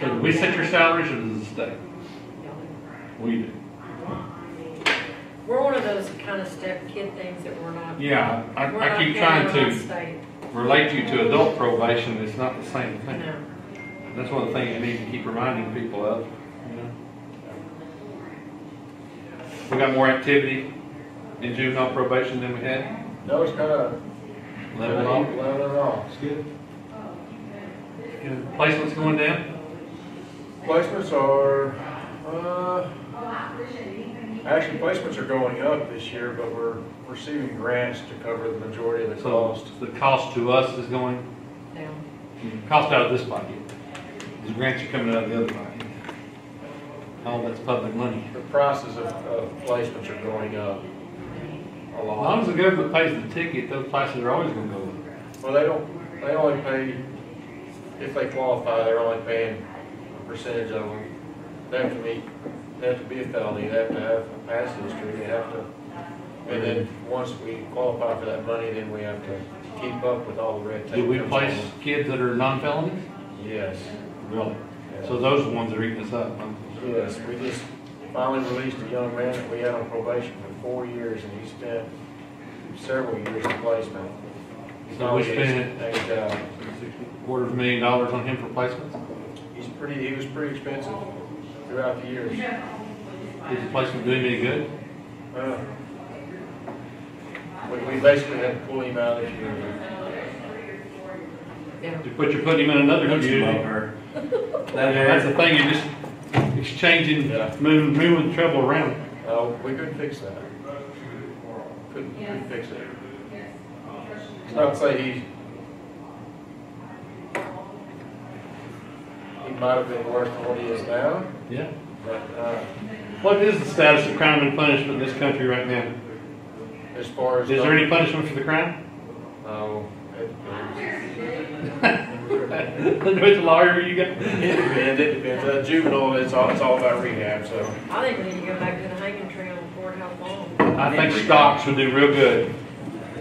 So do we set your salaries or does the state? We do. We're one of those kind of step kid things that we're not. Yeah, I, we're I not keep counting trying on to state, relate you to adult probation, it's not the same you thing. know. That's one of the things you need to keep reminding people of, you know? We got more activity in juvenile probation than we had, No, it's kind of level off. Level off. It's good. Yeah, Placements going down? Placements are, uh, actually placements are going up this year, but we're receiving grants to cover the majority of the So cost. the cost to us is going, Now, cost out of this bucket. The grants are coming out of the other bucket. All that's public money. The prices of, of placements are going up a As long as lot. the government pays the ticket, those prices are always gonna go up. Well, they don't, they only pay, if they qualify, they're only paying a percentage of them. They have to meet, they have to be a felony, they have to have a past history, they have to, and then, once we qualify for that money, then we have to keep up with all the red tape. Do we that's place on kids that are non-felonies? them. Yes, Really? So those are the ones that are eating us up, huh? yes, we just finally released a young man that we had on probation for four years, and he spent several years in placement. He's So we spent- And, uh, Quarter of a million dollars on him for placements? He's pretty, he was pretty expensive throughout the years. Is the placement doing any good? Uh, We, we basically had to pull him out of the community. yeah. But you're putting him in another That's community. about That- That's the thing, you're just exchanging, Yeah. moving, moving trouble around. Uh, we couldn't fix that. Couldn't, couldn't fix it. It's not to say he, he might have been worse than what he is now, Yeah. but, uh, What is the status of crime and punishment in this country right now? as far as. Is there any punishment for the crime? No. It Which lawyer you got? it depends, it depends. Uh, Juvenile, it's all, it's all about rehab, so. I think we need to go back to the hanging tree on Fort House Lawn. I think stocks would do real good.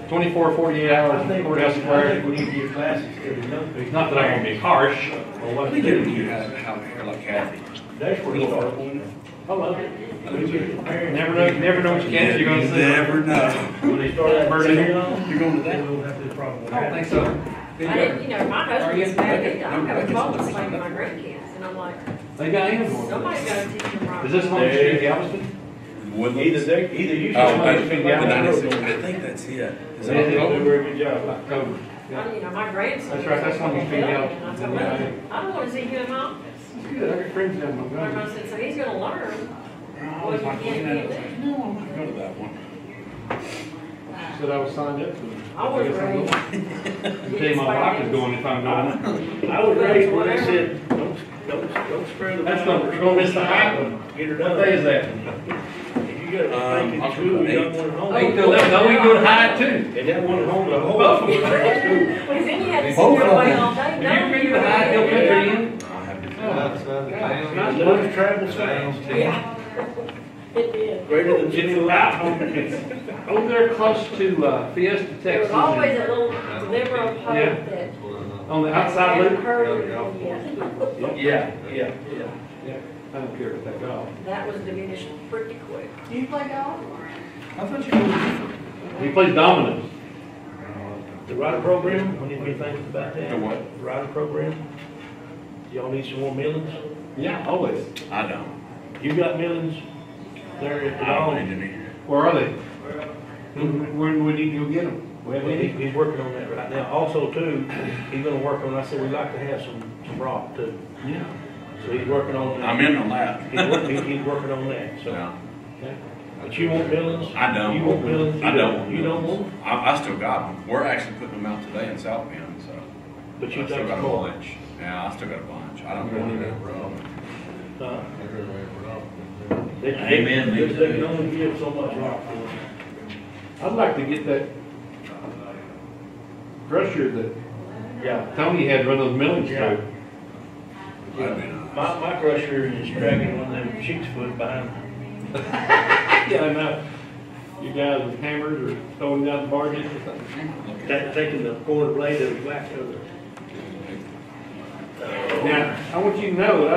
24, 48 hours in courthouse I think square. we need to give classes to the young It's people. not that I'm gonna be harsh. Well, what Let they me get a do, you out out here like Kathy. that's where you start. I love it. We get the parents- Never know, never know what you can, you're gonna see. Never know. When they start that Burn it. burning on, You're going to they that? will have this problem. I don't think so. I didn't, you know, my husband's bad, Are I you- have a phone that's playing with my grandkids, and I'm like, They got him. somebody's gotta teach them right. Is this one that's in Galveston? Woodlands. Either they, either you I- Oh, should. I have think been yeah. down the road. I think that's it. Is They that didn't do a it? very good job. October. I- You know, my grandson. That's right, that's when you feed out. And I told him, I don't wanna see you in my office. That's good, I got friends down in My Montgomery. grandson said, so he's gonna learn I what he can and can't was like, man, No, I'm not going to that one. she said I was signed up for it. do. I was guess I'm raised. going. I Tell you my wife is going if I'm going. I was raised when they said, don't, don't, don't spare the. That's rod. not- you're gonna miss the hot one. Get her What day is done. that? If you got a Um, thinking October school, you eighth. got one at home. Eight till eleven, no, we can go to high too. And that one at home, the whole. Both of them. Well, then you had to sit Both there of away them. all day. Have you been to the high hill country yet? I have to. It does travel south. Yeah. It did. Greater than It's Jimmy about Lyle. over, over there oh, close to uh, Fiesta, There was Texas. always On a little liberal pope Yeah. that. the outside hadn't loop? heard of it yet. Yeah, yeah, yeah, yeah. I don't care about that at all. That was diminished pretty quick. I thought you were. He plays dominoes. The rider program, we need to be thinking about that. The what? The Rider program. Y'all need some more millions? Yeah, always. I don't. You got millions there at the I don't dog. need any. Where are they? When we need to go get them? We have He- any? He's working on that right now. Also too, he's gonna work on, I said, we'd like to have some, some rock too. Yeah. So he's working on that. I'm in on that. He's, wor- he- he's working on that, so. No, But you want millions? I don't. You want millions? I don't. You don't want, I, I still got them. We're actually putting them out today in South Bend, so. but you I still think got it's a more. bunch. Yeah, I still got a bunch. I don't want to that. huh? They- they- Amen, They me they can too. only give so much rock. I'd like to get that crusher that Yeah. Tony had run those millings Yeah. through. That'd be nice. My, my crusher is dragging one of them six foot behind me. Yeah, I know. You guys with hammers or throwing down the barges or something. Look at uh, Ta- Taking the corner blade of the back of the. Now, I want you to know, that I